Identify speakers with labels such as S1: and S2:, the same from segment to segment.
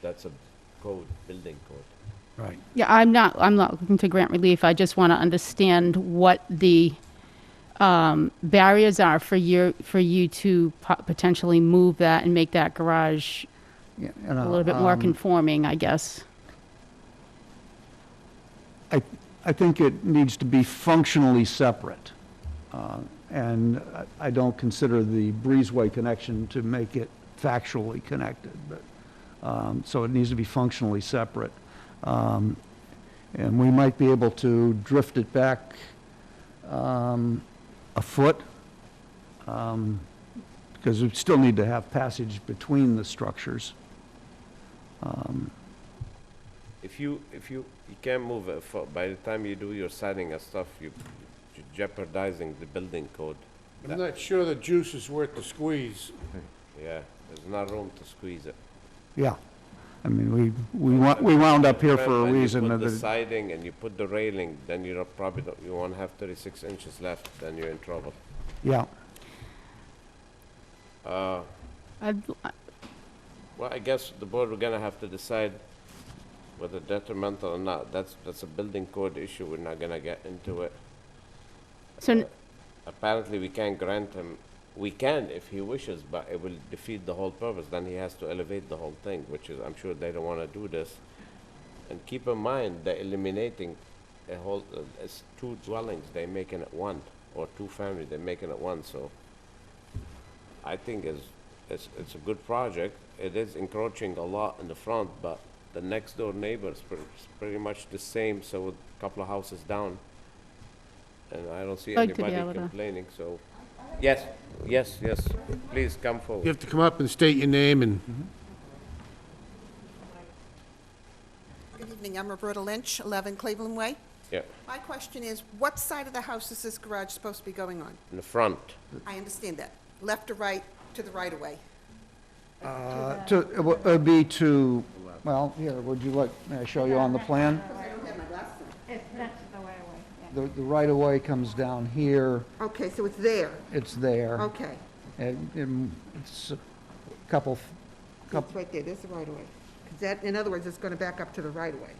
S1: that's a code, building code.
S2: Right.
S3: Yeah, I'm not, I'm not looking to grant relief. I just want to understand what the um, barriers are for your, for you to po- potentially move that and make that garage
S2: Yeah,
S3: a little bit
S2: Uh, um,
S3: more conforming, I guess.
S2: I, I think it needs to be functionally separate. Uh, And I- I don't consider the breezeway connection to make it factually connected, but, um, so it needs to be functionally separate. Um, And we might be able to drift it back um, a foot, because we still need to have passage between the structures.
S1: If you, if you, you can't move it, fo- by the time you do your siding and stuff, you you're jeopardizing the building code.
S4: I'm not sure the juice is worth the squeeze.
S1: Yeah, there's not room to squeeze it.
S2: Yeah. I mean, we, we wa- we wound up here for a
S1: When you
S2: reason.
S1: put
S2: that
S1: the
S2: it-
S1: siding and you put the railing, then you're probably, don't- you won't have thirty-six inches left, then you're in trouble.
S2: Yeah.
S3: I'd-
S1: Well, I guess the board, we're gonna have to decide whether detrimental or not. That's, that's a building code issue, we're not gonna get into it.
S3: So, n-
S1: Apparently, we can't grant him, we can if he wishes, but it will defeat the whole purpose. Then he has to elevate the whole thing, which is, I'm sure they don't wanna do this. And keep in mind, they're eliminating a whole, uh, it's two dwellings, they're making it one, or two families, they're making it one, so. I think is, it's, it's a good project. It is encroaching a lot in the front, but the next door neighbor is pretty, pretty much the same, so a couple of houses down. And I don't see
S3: Like to be
S1: anybody
S3: able to-
S1: complaining, so, yes, yes, yes, please come
S4: You
S1: forward.
S4: have to come up and state your name and
S5: Good evening, I'm Roberta Lynch, 11 Cleveland Way.
S1: Yeah,
S5: My question is, what side of the house is this garage supposed to be going on?
S1: in the front,
S5: I understand that, left or right, to the right of way.
S2: Uh, To, it wo- it would be to, well, here, would you like, may I show you on the plan?
S6: It's next to the right of way, yeah.
S2: The, the right-of-way comes down here,
S5: Okay, so it's there,
S2: it's there.
S5: okay.
S2: And and it's a couple, f-
S5: It's
S2: couple,
S5: right there, there's the right of way. 'Cause that, in other words, it's going to back up to the right of way.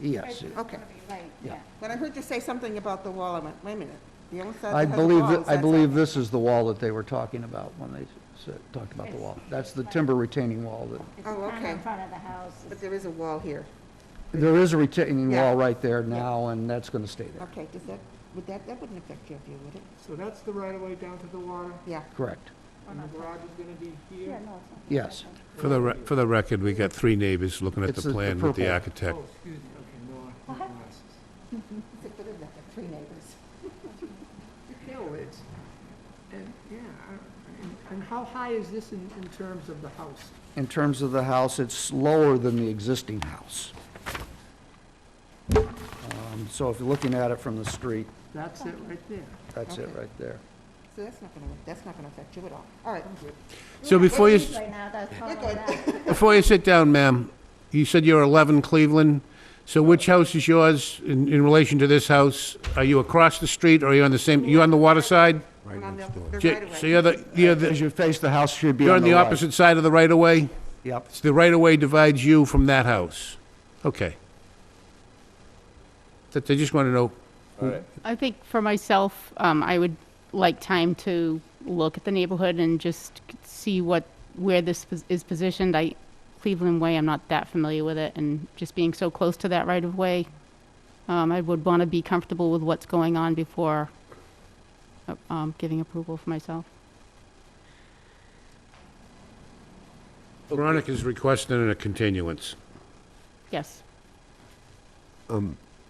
S2: yes.
S5: Okay. Oh,
S6: Right,
S2: Yeah.
S6: yeah.
S5: When I heard you say something about the wall, I went, wait a minute, the only side
S2: I
S5: that has a
S2: believe,
S5: wall
S2: that-
S5: is
S2: I
S5: that
S2: believe
S5: side.
S2: this is the wall that they were talking about when they said, talked about the wall. That's the timber retaining wall that,
S6: It's
S5: Oh,
S6: kind of in
S5: okay.
S6: front of the house.
S5: But there is a wall here.
S2: there is a retaining
S5: Yeah.
S2: wall right there now, and that's gonna stay there,
S5: Okay, does that, would that, that wouldn't affect your view, would it?
S7: So that's the right of way down to the water,
S5: Yeah.
S2: correct.
S6: Oh,
S7: and
S6: no,
S7: the garage is gonna be
S6: it's- Yeah,
S7: here.
S6: no, it's not.
S2: Yes.
S4: for the, re- for the record, we got three neighbors looking at
S2: It's
S4: the
S2: the- the
S4: plan with the
S2: purple.
S4: architect.
S7: Oh, excuse me, okay, no, I- no glasses.
S5: It's a bit of that, three neighbors.
S7: No, it's, and, yeah, I- and- and how high is this in, in terms of the house?
S2: In terms of the house, it's lower than the existing house. Um, So if you're looking at it from the street,
S7: That's it right there.
S2: that's it
S5: Okay.
S2: right there.
S5: So that's not going to, that's not going to affect you at all. All right,
S4: So before you, s-
S6: Right now, that's all
S5: good.
S6: that.
S4: before you sit down, ma'am, you said you're 11 Cleveland. So which house is yours in, in relation to this house? Are you across the street or are you on the same, you on the water side?
S5: Right next door.
S4: J- So you're the, you're
S2: As
S4: the,
S2: you face the house, should be
S4: you're on the
S2: right.
S4: opposite side of the right of way?
S2: Yep,
S4: So the right of way divides you from that house? Okay. That, I just want to know
S1: all right.
S3: I think for myself, um, I would like time to look at the neighborhood and just see what, where this pos- is positioned. I, Cleveland Way, I'm not that familiar with it, and just being so close to that right of way, um, I would want to be comfortable with what's going on before, uh, um, giving approval for myself.
S4: Veronica's requesting a continuance.
S3: Yes.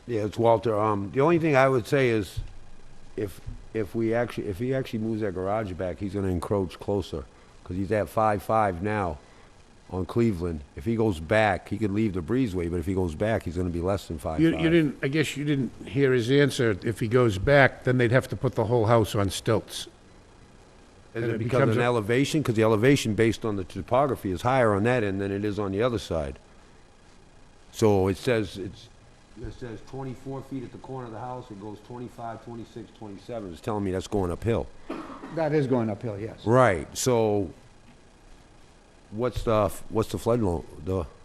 S8: Yeah, it's Walter. Um, the only thing I would say is, if if we actually if he actually moves that garage back, he's going to encroach closer because he's at five five now on Cleveland. If he goes back, he could leave the breezeway, but if he goes back, he's going to be less than five.
S4: You, you didn't, I guess you didn't hear his answer. If he goes back, then they'd have to put the whole house on stilts.
S8: Is
S4: and it
S8: it because
S4: becomes
S8: of an
S4: a-
S8: elevation? Because the elevation based on the topography is higher on that end than it is on the other side. So it says, it's, it says 24 feet at the corner of the house, it goes 25, 26, 27. It's telling me that's going uphill.
S2: that is going uphill, yes.
S8: Right, so what's the, what's the flood lo, the